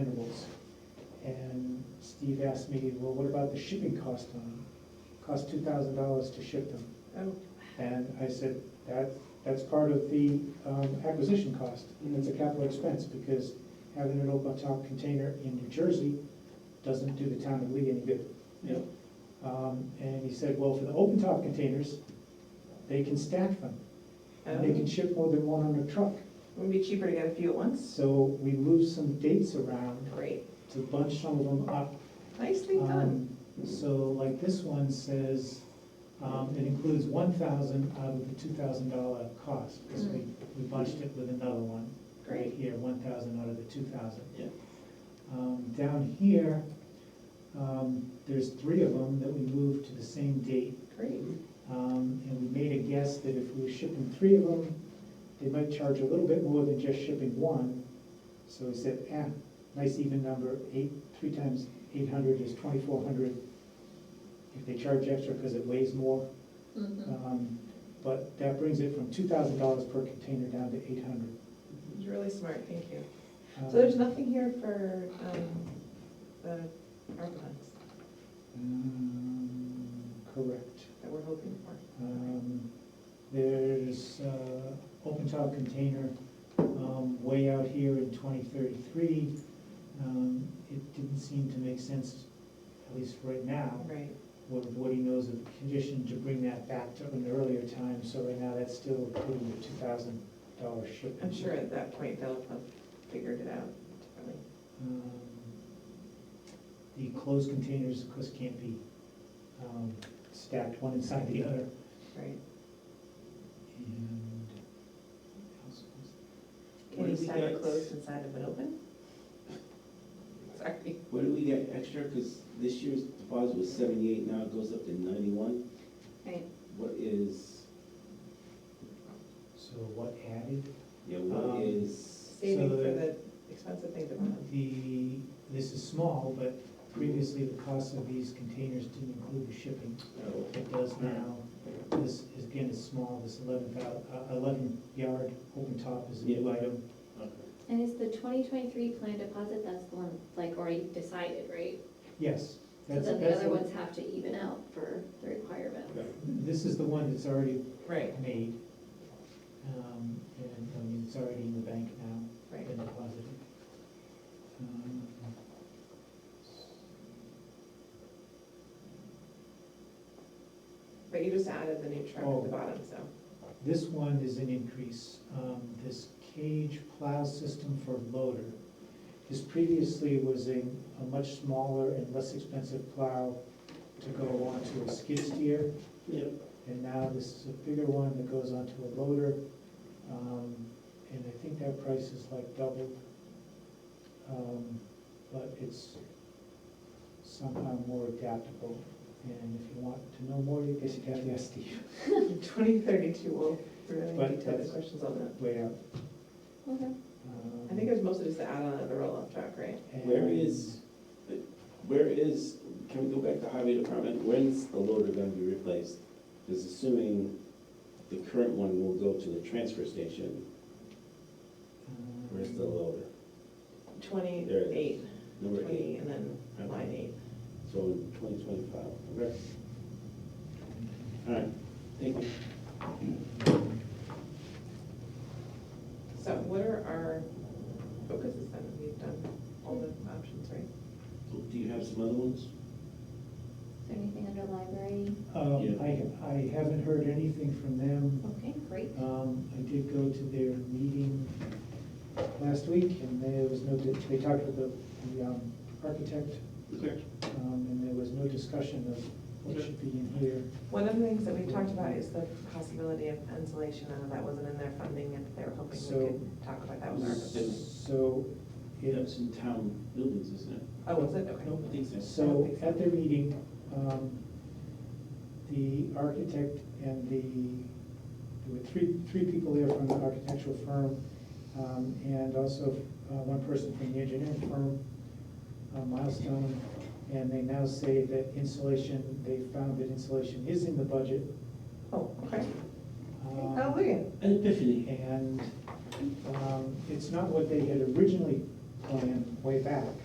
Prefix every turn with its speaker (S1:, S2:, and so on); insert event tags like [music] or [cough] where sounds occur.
S1: Steve asked me, well, what about the shipping cost on them? Cost two thousand dollars to ship them.
S2: Oh,
S1: And I said, that, that's part of the um, acquisition cost, and it's a capital expense, because having an open top container in New Jersey doesn't do the town of Lee any good.
S2: Yeah.
S1: Um, And he said, well, for the open top containers, they can stack them, and they can
S2: um,
S1: ship more than one on a truck.
S2: Would be cheaper to get a few at once.
S1: So we moved some dates around
S2: Great,
S1: to bunch some of them up
S2: nicely done.
S1: um, So like this one says, um, it includes one thousand out of the two thousand dollar cost, because we, we bunched it with another one. Right
S2: Mm-hmm. Great.
S1: Here, one thousand out of the two thousand.
S3: Yeah.
S1: Um, down here, um, there's three of them that we moved to the same date.
S2: Great.
S1: Um, and we made a guess that if we were shipping three of them, they might charge a little bit more than just shipping one. So we said, ah, nice even number, eight, three times eight hundred is twenty-four hundred. If they charge extra because it weighs more,
S2: Mhm.
S1: um, but that brings it from two thousand dollars per container down to eight hundred.
S2: It's really smart, thank you.
S1: um,
S2: So there's nothing here for um, the ARPA funds
S1: Um, Correct.
S2: that we're hoping for.
S1: Um, There's uh, open top container um, way out here in twenty thirty-three. Um, It didn't seem to make sense, at least right now,
S2: Right,
S1: what what he knows of the condition, to bring that back to an earlier time. So right now, that's still including the two thousand dollar shipment.
S2: I'm sure at that point they'll have figured it out. probably.
S1: Um, The closed containers, of course, can't be um, stacked one inside the other.
S2: Right.
S1: And what else was
S2: Can you
S3: What do we
S2: sign it
S3: got?
S2: closed inside of it open? [laughs] Sorry.
S3: Where do we get extra? Because this year's deposit was seventy-eight, now it goes up to ninety-one.
S2: Right.
S3: What is,
S1: So what added?
S3: yeah, what
S1: Um,
S3: is,
S2: Saving for
S1: So
S2: the expensive thing to buy.
S1: The, this is small, but previously the cost of these containers didn't include the shipping.
S3: oh,
S1: It does now. This, is again, is small, this eleven thou, uh, eleven yard open top is a new
S3: Yeah.
S1: item.
S3: okay.
S4: And is the twenty twenty-three plan deposit, that's the one, like, already decided, right?
S1: Yes.
S4: So
S1: that's
S4: then the
S1: that's
S4: other ones have to even out for the requirement.
S1: This is the one that's already
S2: Right,
S1: made. Um, and, I mean, it's already in the bank now.
S2: right.
S1: been deposited. Um,
S2: But you just added the new truck at
S1: Oh.
S2: the bottom, so. [laughs]
S1: This one is an increase. Um, This cage plow system for loader. This previously was a, a much smaller and less expensive plow to go onto a skid steer.
S3: Yeah.
S1: And now this is a bigger one that goes onto a loader. Um, And I think that price is like doubled. Um, But it's somehow more adaptable. And if you want to know more, you guess you'd have to ask Steve. [laughs]
S2: Twenty thirty-two, we'll, we're
S1: But
S2: gonna detail the
S1: that's-
S2: questions on that.
S1: Way out.
S4: Okay.
S1: Um,
S2: I think it was mostly just the add-on of the roll-off truck, right?
S1: and-
S3: Where is, where is, can we go back to highway department? When's the loader gonna be replaced? Because assuming the current one will go to the transfer station,
S1: um,
S3: where's the loader?
S2: Twenty-eight,
S3: Number
S2: twenty,
S3: eight,
S2: and then line eight.
S3: so in twenty twenty-five, okay? All right, thank you.
S2: So what are our focuses then? We've done all the options, right?
S3: Do you have some other ones?
S4: Is there anything under library?
S1: Um,
S3: Yeah.
S1: I, I haven't heard anything from them.
S4: Okay, great.
S1: Um, I did go to their meeting last week and there was no, they talked with the, the, um, architect,
S3: Okay.
S1: um, and there was no discussion of what should be in here.
S2: One of the things that we talked about is the possibility of insulation, I know that wasn't in their funding, and they were hoping
S1: So-
S2: we could talk about that with our.
S1: So,
S3: It's
S1: it's,
S3: in town buildings, isn't it?
S2: Oh, was it? Okay.
S3: Nope, I think so.
S1: so at their meeting, um, the architect and the, there were three, three people there from the architectural firm, um, and also, uh, one person from the engineering firm, uh, Milestone. And they now say that insulation, they found that insulation is in the budget.
S2: Oh, okay.
S1: um,
S2: Hallelujah.
S3: An epiphany.
S1: And, um, it's not what they had originally planned way back.